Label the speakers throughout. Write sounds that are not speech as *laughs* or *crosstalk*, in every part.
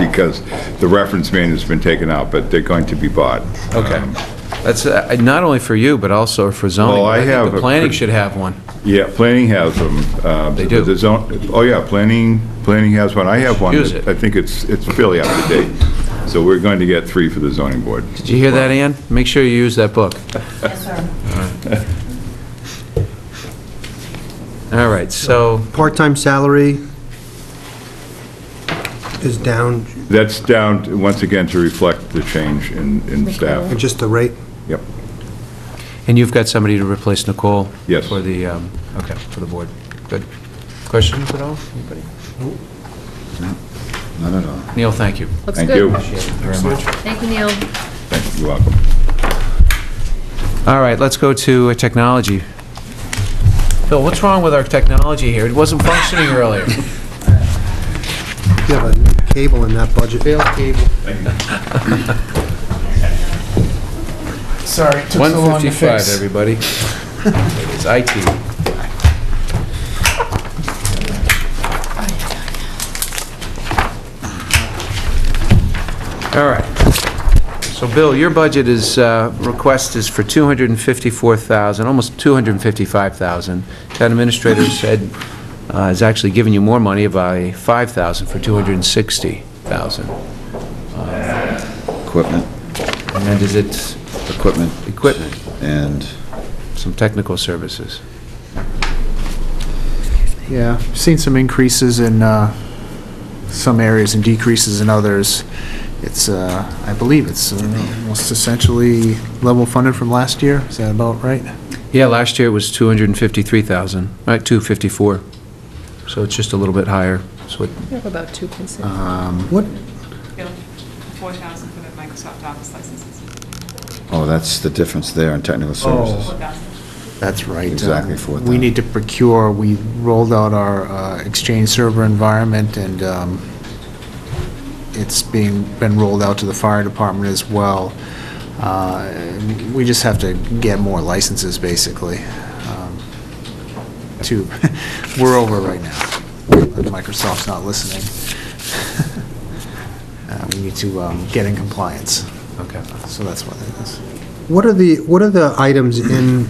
Speaker 1: because the reference man has been taken out, but they're going to be bought.
Speaker 2: Okay.
Speaker 1: Um,
Speaker 2: That's, uh, not only for you, but also for zoning.
Speaker 1: Well, I
Speaker 2: but think
Speaker 1: have
Speaker 2: The
Speaker 1: a
Speaker 2: planning
Speaker 1: pretty-
Speaker 2: should have one.
Speaker 1: Yeah, planning has them. uh,
Speaker 2: They do.
Speaker 1: but The zone, oh yeah, planning, planning has one. I have one.
Speaker 2: Use
Speaker 1: that
Speaker 2: it.
Speaker 1: I think it's, it's fairly up to date. So we're going to get three for the zoning board.
Speaker 2: Did you hear that, Ann? Make sure you use that book.
Speaker 3: Yes, sir.
Speaker 2: All right, so,
Speaker 4: Part-time salary is down,
Speaker 1: That's down, once again, to reflect the change in, in staff.
Speaker 4: just the rate.
Speaker 1: Yep.
Speaker 2: and you've got somebody to replace Nicole?
Speaker 1: Yes.
Speaker 2: For the, um, okay, for the board. Good. Questions at all? Anybody?
Speaker 1: Not at all.
Speaker 2: Neil, thank you.
Speaker 5: Looks
Speaker 1: Thank
Speaker 5: good.
Speaker 1: you.
Speaker 2: Very much.
Speaker 5: Thank you, Neil.
Speaker 1: Thank you. You're welcome.
Speaker 2: All right, let's go to uh, technology. Phil, what's wrong with our technology here? It wasn't functioning earlier.
Speaker 4: You have a cable in that budget. cable.
Speaker 6: Sorry, it took so long to
Speaker 2: 155,
Speaker 6: fix. *laughs*
Speaker 2: everybody. It's IT. All right. So Bill, your budget is, uh, request is for 254,000, almost 255,000. Town administrator said, uh, is actually giving you more money by 5,000 for 260,000.
Speaker 7: equipment,
Speaker 2: And then is it
Speaker 7: equipment,
Speaker 2: equipment,
Speaker 7: and,
Speaker 2: some technical services?
Speaker 6: Yeah, I've seen some increases in uh, some areas and decreases in others. It's, uh, I believe it's uh, almost essentially level funded from last year. Is that about right?
Speaker 2: Yeah, last year it was 253,000, right, 254. So it's just a little bit higher. So it-
Speaker 5: We have about two consent.
Speaker 4: What,
Speaker 8: bill, 4,000 for the Microsoft Office licenses,
Speaker 7: oh, that's the difference there in technical services.
Speaker 8: 4,000.
Speaker 6: That's right.
Speaker 7: Exactly,
Speaker 6: Um,
Speaker 7: 4,000.
Speaker 6: We need to procure, we rolled out our uh, Exchange server environment, and um, it's being, been rolled out to the fire department as well. Uh, We just have to get more licenses, basically, um, to, *laughs* we're over right now. Microsoft's not listening. *laughs* Uh, We need to um, get in compliance,
Speaker 2: okay.
Speaker 6: so that's what it is.
Speaker 4: what are the, what are the items in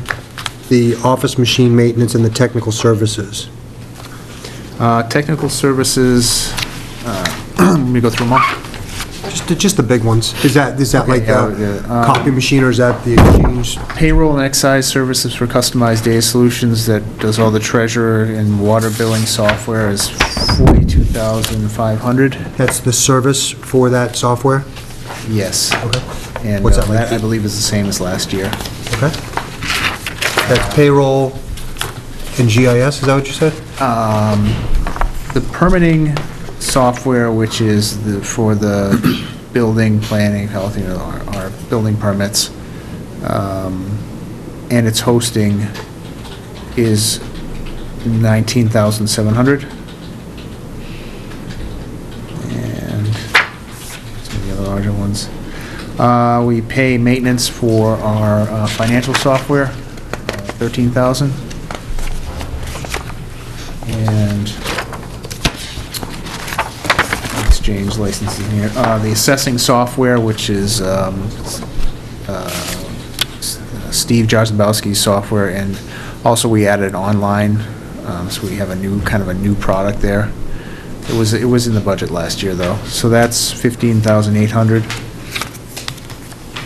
Speaker 4: the office machine maintenance and the technical services?
Speaker 6: Uh, Technical services, uh, *clears throat* let me go through them all.
Speaker 4: Just, the- just the big ones. Is that, is that
Speaker 6: Okay,
Speaker 4: like
Speaker 6: yeah,
Speaker 4: the
Speaker 6: yeah, um,
Speaker 4: copy machine or is that the exchange?
Speaker 6: Payroll and excise services for customized data solutions that does all the treasurer and water billing software is 42,500.
Speaker 4: That's the service for that software?
Speaker 6: Yes.
Speaker 4: Okay.
Speaker 6: And
Speaker 4: What's
Speaker 6: uh,
Speaker 4: that like?
Speaker 6: that, I believe, is the same as last year.
Speaker 4: Okay. That's payroll and GIS, is that what you said?
Speaker 6: um, The permitting software, which is the, for the building planning, health, you know, our, our building permits, um, and its hosting is 19,700. And some of the other larger ones. Uh, we pay maintenance for our uh, financial software, uh, 13,000. And exchange licenses here. Uh, The assessing software, which is um, uh, S- uh, Steve Jarzabowski's software, and also we added online, um, so we have a new, kind of a new product there. It was, it was in the budget last year, though, so that's 15,800.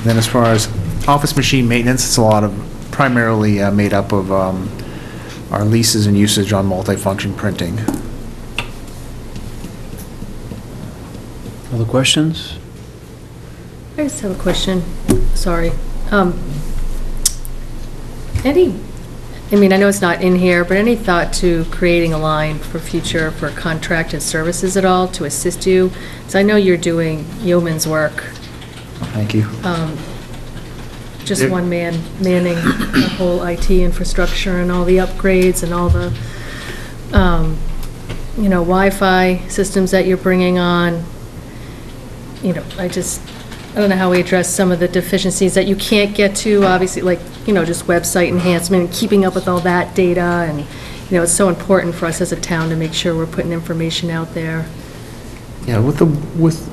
Speaker 6: Then as far as office machine maintenance, it's a lot of, primarily uh, made up of um, our leases and usage on multifunction printing.
Speaker 2: Other questions?
Speaker 5: I just have a question, sorry. Um, Any, I mean, I know it's not in here, but any thought to creating a line for future for contracted services at all to assist you? So I know you're doing yeoman's work,
Speaker 6: Thank you.
Speaker 5: just
Speaker 6: Yeah.
Speaker 5: one man manning the whole IT infrastructure and all the upgrades and all the, um, you know, Wi-Fi systems that you're bringing on. You know, I just, I don't know how we address some of the deficiencies that you can't get to, obviously, like, you know, just website enhancement, and keeping up with all that data, and, you know, it's so important for us as a town to make sure we're putting information out there.
Speaker 6: Yeah, with the, with